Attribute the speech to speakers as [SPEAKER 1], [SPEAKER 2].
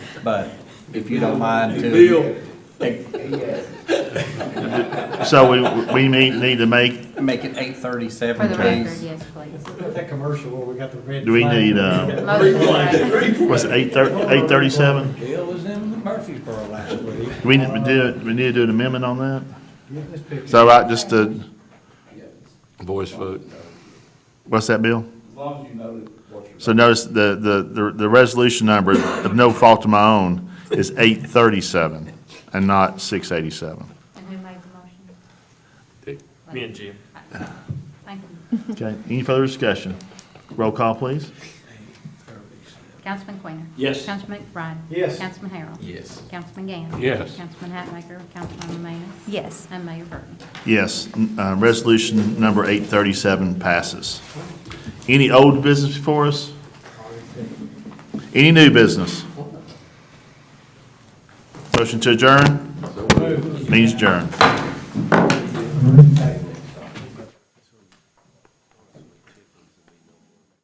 [SPEAKER 1] but if you don't mind to. Bill.
[SPEAKER 2] So we, we need, need to make,
[SPEAKER 1] Make it eight
[SPEAKER 3] For
[SPEAKER 1] thirty-seven,
[SPEAKER 3] the record,
[SPEAKER 1] please.
[SPEAKER 3] yes, please.
[SPEAKER 4] Got that commercial where we got the red.
[SPEAKER 2] Do we
[SPEAKER 4] flag.
[SPEAKER 2] need, uh,
[SPEAKER 3] Motion.
[SPEAKER 2] what's it, eight thirty, eight thirty-seven?
[SPEAKER 1] Bill was in Murfreesboro last week.
[SPEAKER 2] Do we, need- we do, we need to do an amendment on that?
[SPEAKER 4] Yeah, let's pick
[SPEAKER 2] Is that right, just uh, to,
[SPEAKER 5] Voice vote.
[SPEAKER 2] what's that, Bill?
[SPEAKER 6] As long as you know that what you're.
[SPEAKER 2] So notice the, the, the, the resolution number, of no fault of my own, is eight thirty-seven and not six eighty-seven.
[SPEAKER 3] And who made the motion? Uh,
[SPEAKER 7] Me and Jim.
[SPEAKER 3] Thank you.
[SPEAKER 2] Okay, any further discussion? Roll call, please.
[SPEAKER 3] Councilman Quainer.
[SPEAKER 7] Yes.
[SPEAKER 3] Councilman McBride.
[SPEAKER 4] Yes.
[SPEAKER 3] Councilman Harrell.
[SPEAKER 1] Yes.
[SPEAKER 3] Councilman Gann.
[SPEAKER 5] Yes.
[SPEAKER 3] Councilman Hatmaker, Councilman Manis,
[SPEAKER 8] Yes.
[SPEAKER 3] and Mayor Burton.
[SPEAKER 2] Yes, n- uh, resolution number eight thirty-seven passes. Any old business for us? Any new business? Motion to adjourn? Means adjourn.
[SPEAKER 4] it.